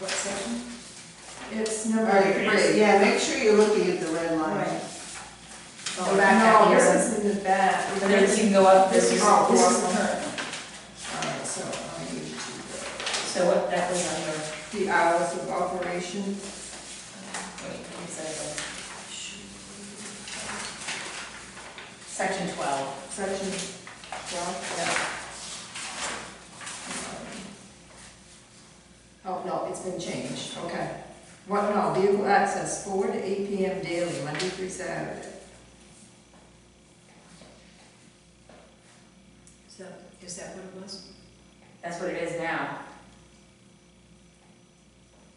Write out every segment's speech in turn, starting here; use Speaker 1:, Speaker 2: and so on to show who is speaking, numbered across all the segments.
Speaker 1: What section? It's number.
Speaker 2: All right, great, yeah, make sure you're looking at the red line.
Speaker 1: Right.
Speaker 3: Go back out
Speaker 1: Oh, No,
Speaker 3: here.
Speaker 1: this is in the back.
Speaker 3: And then you can go up,
Speaker 1: This
Speaker 3: this
Speaker 1: is,
Speaker 3: is,
Speaker 1: oh, this is
Speaker 3: this
Speaker 1: the
Speaker 3: is-
Speaker 1: current one. All right, so I need to,
Speaker 3: so what, that was on your,
Speaker 1: go- the hours of operation.
Speaker 3: wait, you said it was- Section twelve.
Speaker 1: Section twelve. Oh, no, it's been changed, okay. What, no, vehicle access, four to eight PM daily, Monday through Saturday.
Speaker 4: Is that, is that what it was?
Speaker 3: That's what it is now.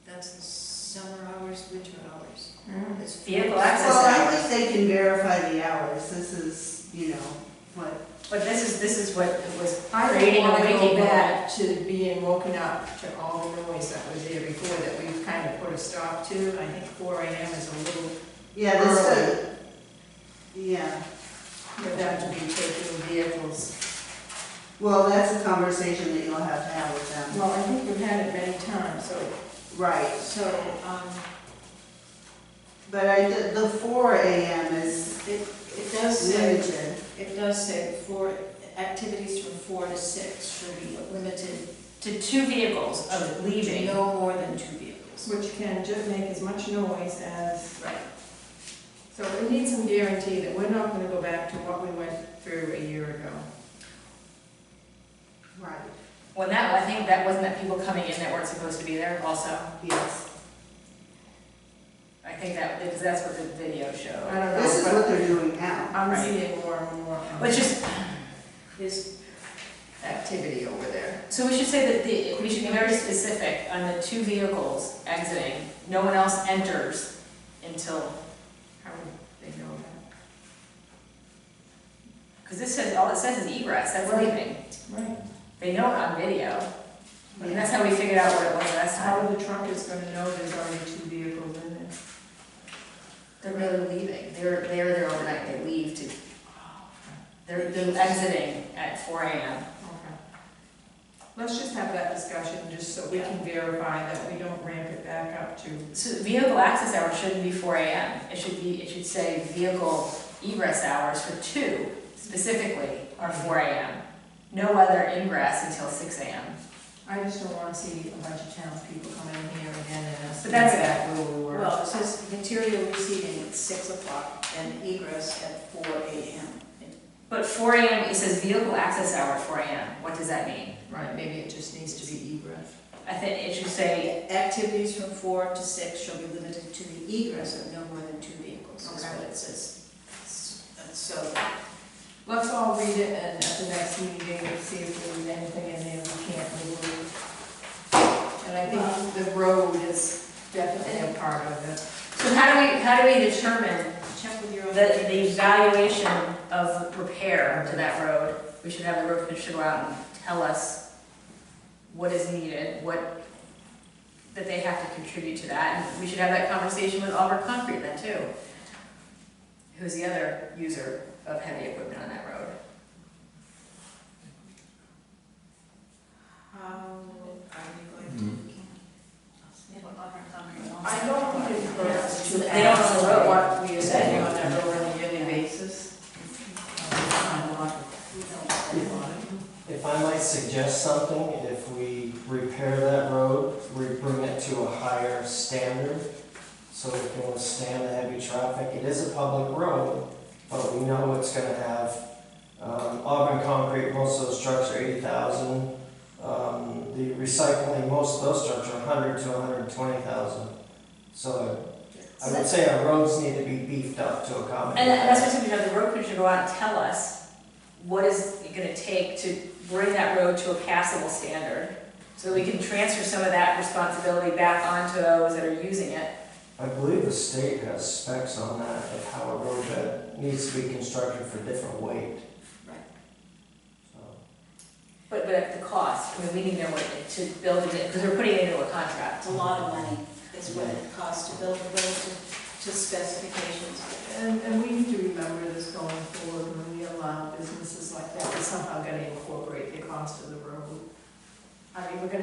Speaker 4: That's the summer hours, winter hours.
Speaker 3: It's Mm-hmm. vehicle
Speaker 2: Well, I
Speaker 3: access hours.
Speaker 2: think they can verify the hours, this is, you know, what,
Speaker 3: But this is, this is what it was
Speaker 1: I don't
Speaker 3: creating a
Speaker 1: wanna go
Speaker 3: waking up.
Speaker 1: back to being woken up to all the noise that was there before that we've kind of put a stop to. I think four AM is a little,
Speaker 2: yeah, this is, yeah.
Speaker 1: for them to be taking vehicles.
Speaker 2: Well, that's a conversation that you'll have to have with them.
Speaker 1: Well, I think we've had it many times, so,
Speaker 2: Right,
Speaker 4: So, um,
Speaker 2: but I, did- the four AM is
Speaker 4: it, it does say,
Speaker 2: limited.
Speaker 4: it does say four, activities from four to six should be limited
Speaker 3: To two vehicles of
Speaker 4: to
Speaker 3: leaving.
Speaker 4: no more than two vehicles.
Speaker 1: which can just make as much noise as
Speaker 4: Right.
Speaker 1: So we need some guarantee that we're not gonna go back to what we went through a year ago.
Speaker 2: Right,
Speaker 3: Well, that, I think that wasn't that people coming in that weren't supposed to be there also.
Speaker 2: yes.
Speaker 3: I think that, because that's what the video
Speaker 1: I
Speaker 3: showed.
Speaker 1: don't
Speaker 2: This is
Speaker 1: know,
Speaker 2: what they're doing now.
Speaker 1: but I'm
Speaker 3: Right.
Speaker 1: seeing more and more um,
Speaker 3: Which is,
Speaker 4: Is,
Speaker 1: activity over there.
Speaker 3: so we should say that the, we should be very specific on the two vehicles exiting. No one else enters until,
Speaker 1: How would they know that?
Speaker 3: because this says, all it says is egress, that's
Speaker 1: Right.
Speaker 3: leaving.
Speaker 1: Right.
Speaker 3: They know it on video. And that's how we figured out what it was last
Speaker 1: How
Speaker 3: time.
Speaker 1: are the truckers gonna know there's already two vehicles in there?
Speaker 3: They're really leaving. They're, they're there overnight. They leave to, they're, they're exiting at four AM.
Speaker 1: Okay. Let's just have that discussion, just so we
Speaker 3: Yeah.
Speaker 1: can verify that we don't ramp it back up to.
Speaker 3: So vehicle access hours shouldn't be four AM. It should be, it should say vehicle egress hours for two specifically are four AM. No other ingress until six AM.
Speaker 1: I just don't wanna see a bunch of townspeople come in here again and us.
Speaker 3: But that's-
Speaker 1: that rule we were-
Speaker 4: well, it says material receiving at six o'clock and egress at four AM.
Speaker 3: But four AM, it says vehicle access hour four AM. What does that mean?
Speaker 1: Right, maybe it just needs to be egress.
Speaker 3: I think it should say,
Speaker 4: Activities from four to six shall be limited to the egress of no more than two vehicles, is
Speaker 1: Okay.
Speaker 4: what it says. S- So,
Speaker 1: Let's all read it and at the next meeting, we'll see if there's anything in there we can't remove. And I think the road is definitely a part of it.
Speaker 3: so how do we, how do we determine
Speaker 4: check with your
Speaker 3: The,
Speaker 4: own.
Speaker 3: the evaluation of repair to that road, we should have the road commissioner go out and tell us what is needed, what, that they have to contribute to that, and we should have that conversation with Auburn Concrete then too. Who's the other user of heavy equipment on that road?
Speaker 4: How are you going
Speaker 5: Mm.
Speaker 4: to?
Speaker 1: I don't think it's for us to
Speaker 3: They don't know what-
Speaker 1: what we are saying on that road on a yearly basis.
Speaker 6: If I might suggest something, if we repair that road, we bring it to a higher standard so it can withstand the heavy traffic. It is a public road, but we know it's gonna have, um, Auburn concrete, most of those trucks are eighty thousand. Um, the recycling, most of those trucks are hundred to hundred and twenty thousand. So I would say our roads need to be beefed up to accommodate.
Speaker 3: And that- that's
Speaker 6: that.
Speaker 3: what we should have the road commissioner go out and tell us what is it gonna take to bring that road to a passable standard, so that we can transfer some of that responsibility back onto those that are using it.
Speaker 6: I believe the state has specs on that of how a road bed needs to be constructed for different weight.
Speaker 4: Right.
Speaker 6: So,
Speaker 3: But, but at the cost, I mean, we need to know what, it- to build it, because we're putting it into a contract.
Speaker 4: It's a lot of money, is what it costs to build a road to to specifications.
Speaker 1: And, and we need to remember this going forward, when we allow businesses like that, we somehow gotta incorporate the cost of the road. I mean, we're gonna